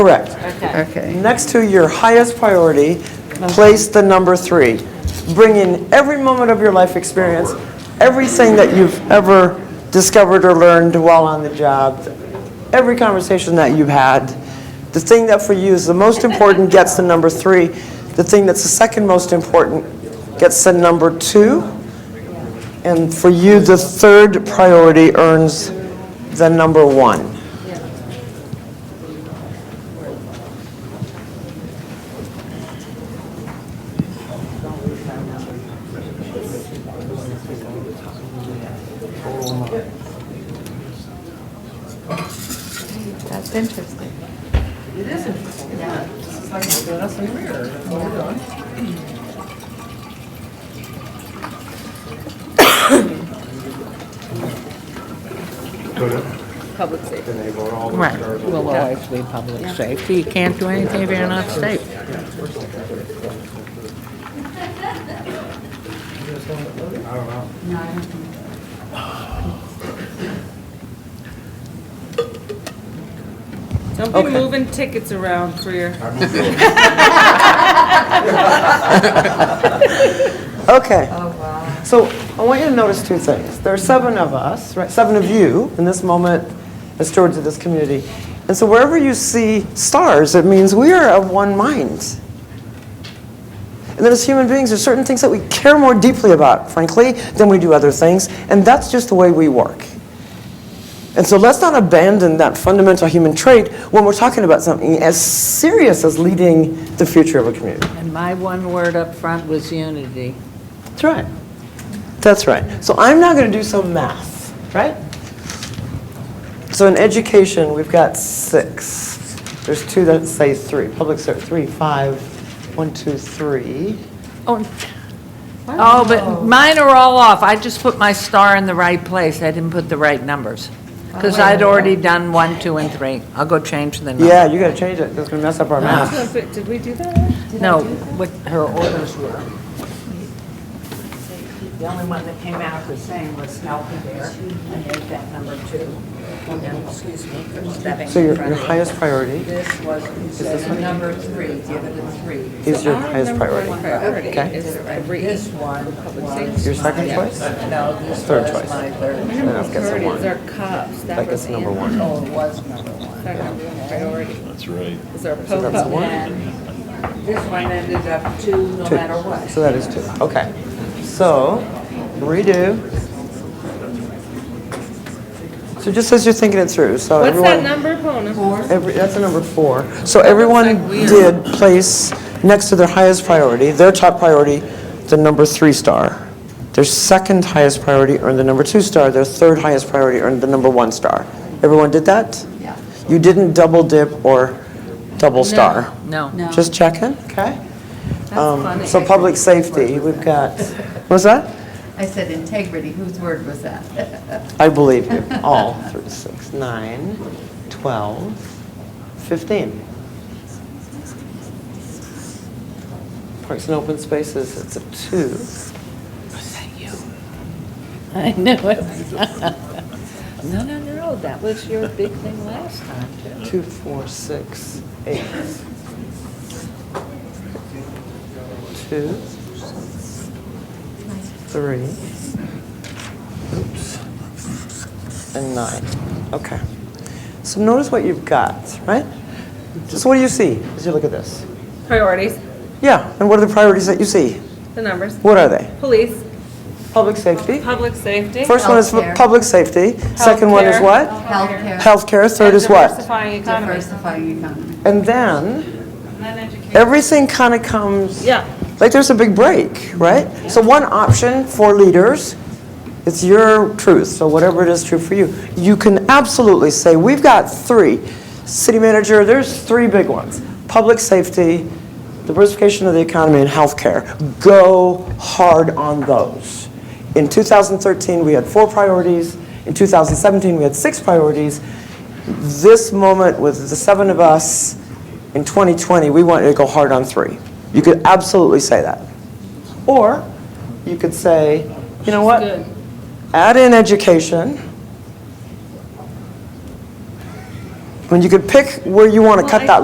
Correct. Okay. Next to your highest priority, place the number three. Bring in every moment of your life experience, everything that you've ever discovered or learned while on the job, every conversation that you've had. The thing that for you is the most important gets the number three. The thing that's the second most important gets the number two. And for you, the third priority earns the number one. That's interesting. Public safety. Right. Will always be public safety. You can't do anything if you're not safe. Don't be moving tickets around for your. Okay. So I want you to notice two things. There are seven of us, right, seven of you in this moment as stewards of this community. And so wherever you see stars, it means we are of one mind. And then as human beings, there's certain things that we care more deeply about, frankly, than we do other things. And that's just the way we work. And so let's not abandon that fundamental human trait when we're talking about something as serious as leading the future of a community. And my one word up front was unity. That's right. That's right. So I'm now going to do some math, right? So in education, we've got six. There's two that say three. Public service, three, five, one, two, three. Oh, but mine are all off. I just put my star in the right place. I didn't put the right numbers. Oh, Because I'd already done one, two, and three. I'll go change the number. Yeah, you got to change it. That's going to mess up our math. Did we do that? No, what her orders were. The only one that came out the same was Snowy Bear, and there's that number two. And then, excuse me, for stepping So in your, front your of you. highest priority This was, considered number three, give it a three. is your highest priority. Priority Okay. is every. This one was. Your second my- choice? No, this Third was choice. my third. And I'll get some Priorities one. are cops. That That was gets number in- one. Oh, it was number one. That number one priority. That's right. Is our POPA. And this one ended up two, no matter what. So that is two. Okay. So redo. So just as you're thinking it through, so What's everyone. Eh, that number, Mona? Every, that's a number four. So everyone did place next to their highest priority, their top priority, the number three star. Their second highest priority earned the number two star. Their third highest priority earned the number one star. Everyone did that? Yeah. You didn't double dip or double star? No. Just checking, okay? Um, So public safety, we've got, what's that? I said integrity, whose word was that? I believe you. All through six, nine, 12, 15. Parks and open spaces, it's a two. I knew it. No, no, no, that was your big thing last time, too. Two, four, six, eight. Two. Three. Oops. And nine. Okay. So notice what you've got, right? Just what do you see as you look at this? Priorities, Yeah, and what are the priorities that you see? the numbers. What are they? Police, Public safety. public safety. First one is for Healthcare. public safety. Second one is Healthcare. what? Healthcare, Healthcare. Third is what? Diversifying economy. diversifying economy. And then And then education. everything kind of comes. Yeah. Like there's a big break, right? So one option for leaders, it's your truth. So whatever it is true for you, you can absolutely say we've got three. City manager, there's three big ones: public safety, diversification of the economy, and healthcare. Go hard on those. In 2013, we had four priorities. In 2017, we had six priorities. This moment with the seven of us in 2020, we want you to go hard on three. You could absolutely say that. Or you could say, you know what? Add in education. When you could pick where you want to cut that